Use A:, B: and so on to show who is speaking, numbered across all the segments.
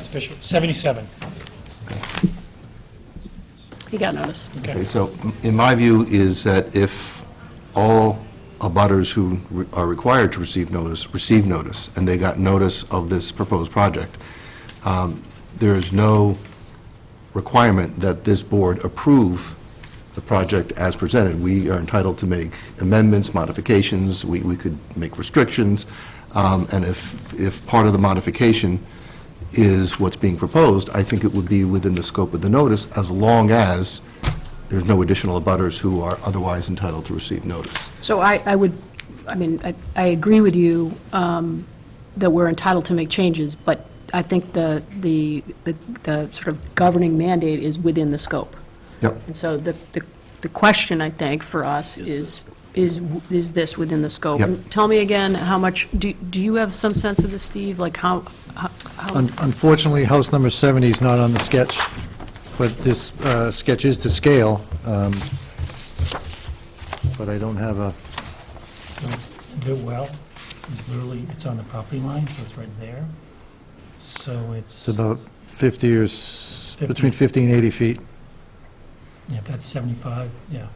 A: official, 77.
B: He got notice.
A: Okay.
C: Okay, so in my view is that if all abutters who re- are required to receive notice, receive notice, and they got notice of this proposed project, um, there is no requirement that this board approve the project as presented. We are entitled to make amendments, modifications, we, we could make restrictions, um, and if, if part of the modification is what's being proposed, I think it would be within the scope of the notice, as long as there's no additional abutters who are otherwise entitled to receive notice.
B: So I, I would, I mean, I, I agree with you um, that we're entitled to make changes, but I think the, the, the- the sort of governing mandate is within the scope.
C: Yep.
B: And so the, the, the question, I think, for us is, is, is this within the scope?
C: Yep.
B: And Tell me again, how much, do, do you have some sense of this, Steve? Like how, how- how,
D: Un- Unfortunately, house number 70 is not on the sketch, but this uh, sketch is to scale, um, but I don't have a,
A: So it's- The well is literally, it's on the property line, so it's right there. So it's,
D: it's about 50 or, s-
A: Fifty.
D: between 50 and 80 feet.
A: yeah, if that's 75, yeah.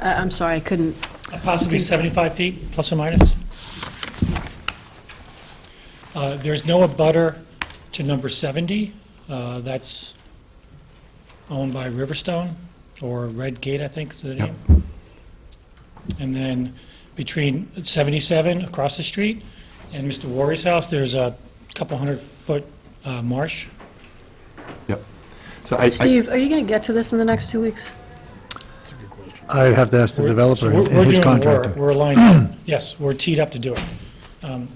B: I- I'm sorry, I couldn't,
A: Possibly 75 feet, plus or minus. Uh, There's no abutter to number 70. uh, That's owned by Riverstone, or Red Gate, I think is the name. And then between 77, across the street, and Mr. Warry's house, there's a couple hundred-foot marsh.
C: Yep. So I, I-
B: Steve, are you going to get to this in the next two weeks?
D: I would have to ask the developer
A: So we're-
D: and
A: we're
D: his
A: doing the work.
D: contractor.
A: We're aligned, up. yes, we're teed up to do it. Um,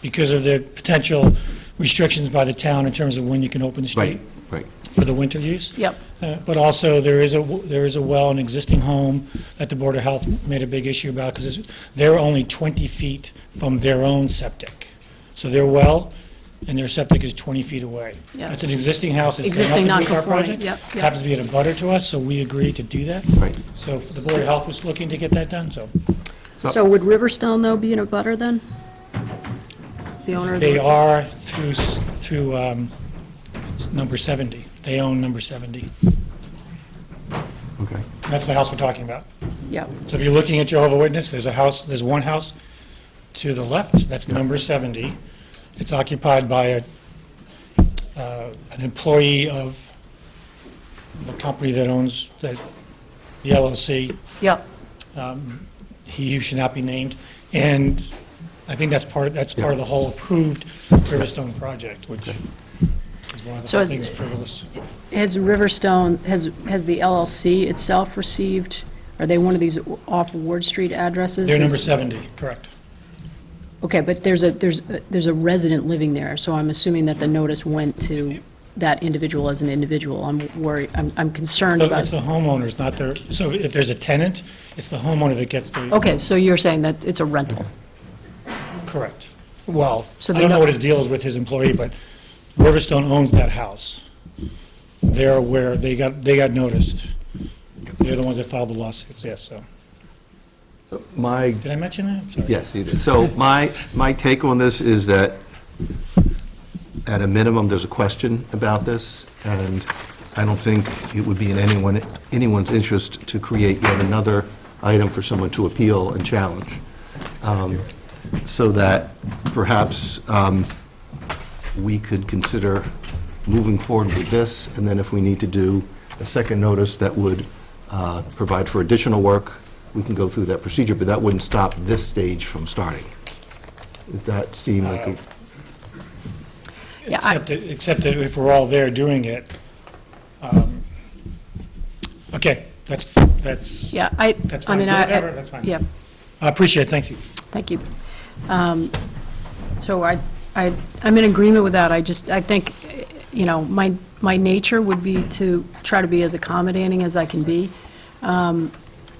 A: Because of the potential restrictions by the town in terms of when you can open the
C: right,
A: street
C: right.
A: for the winter use.
B: Yep.
A: Uh, But also, there is a, w- there is a well, an existing home that the Board of Health made a big issue about because they're only 20 feet from their own septic. So their well and their septic is 20 feet away.
B: Yeah.
A: That's an existing house. It's got
B: Existing
A: nothing to do with our
B: non-conforming,
A: project.
B: yep, yep.
A: Happens to be in a butter to us, so we agreed to do that.
C: Right.
A: So the Board of Health was looking to get that done, so
B: So would Riverstone, though, be in a butter then? The owner of the...
A: they are through, s- through um, s- number 70. They own number 70.
C: Okay.
A: That's the house we're talking about.
B: Yeah,
A: So if you're looking at Jehovah Witness, there's a house, there's one house to the left, that's number 70. It's occupied by a, uh, an employee of the company that owns, that, the LLC,
B: yeah,
A: he who should not be named. And I think that's part, that's part of the whole approved Riverstone project, which is one of
B: So
A: the
B: is-
A: things frivolous.
B: Has Riverstone, has, has the LLC itself received, are they one of these off Ward Street addresses?
A: They're number 70, correct.
B: Okay, but there's a, there's, a- there's a resident living there, so I'm assuming that the notice went to that individual as an individual. I'm worried, I'm, I'm concerned
A: So it's
B: about,
A: the homeowners, not their, so if there's a tenant, it's the homeowner that gets the,
B: okay, so you're saying that it's a rental?
A: correct. Well,
B: So
A: I
B: they
A: don't know
B: know-
A: what his deal is with his employee, but Riverstone owns that house. They're aware, they got, they got noticed. They're the ones that filed the lawsuits, yes, so.
C: My
A: Did I mention that? Sorry.
C: Yes, you did. So my, my take on this is that, at a minimum, there's a question about this, and I don't think it would be in anyone, anyone's interest to create yet another item for someone to appeal and challenge. Um, So that perhaps um, we could consider moving forward with this, and then if we need to do a second notice that would uh, provide for additional work, we can go through that procedure, but that wouldn't stop this stage from starting. Did that seem like a...
B: Yeah, I-
A: Except that, except that if we're all there doing it, um, okay, that's, that's,
B: Yeah, I,
A: That's
B: I
A: fine.
B: mean, I... I-
A: Whatever, that's fine.
B: Yeah.
A: I appreciate it, thank you.
B: Thank you. Um, So I, I, I'm in agreement with that. I just, I think, eh, you know, my, my nature would be to try to be as accommodating as I can be. Um,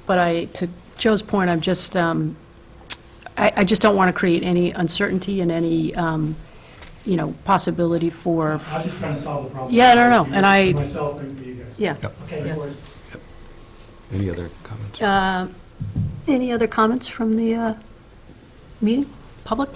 B: But I, to Joe's point, I'm just, um, I, I just don't want to create any uncertainty and any, um, you know, possibility for,
A: I'm just trying to solve the problem.
B: Yeah, no, no, and I-
A: Myself and for you guys.
B: yeah.
A: Okay,
B: Yeah.
A: no worries.
C: Any other comments?
B: Any other comments from the uh, meeting, public?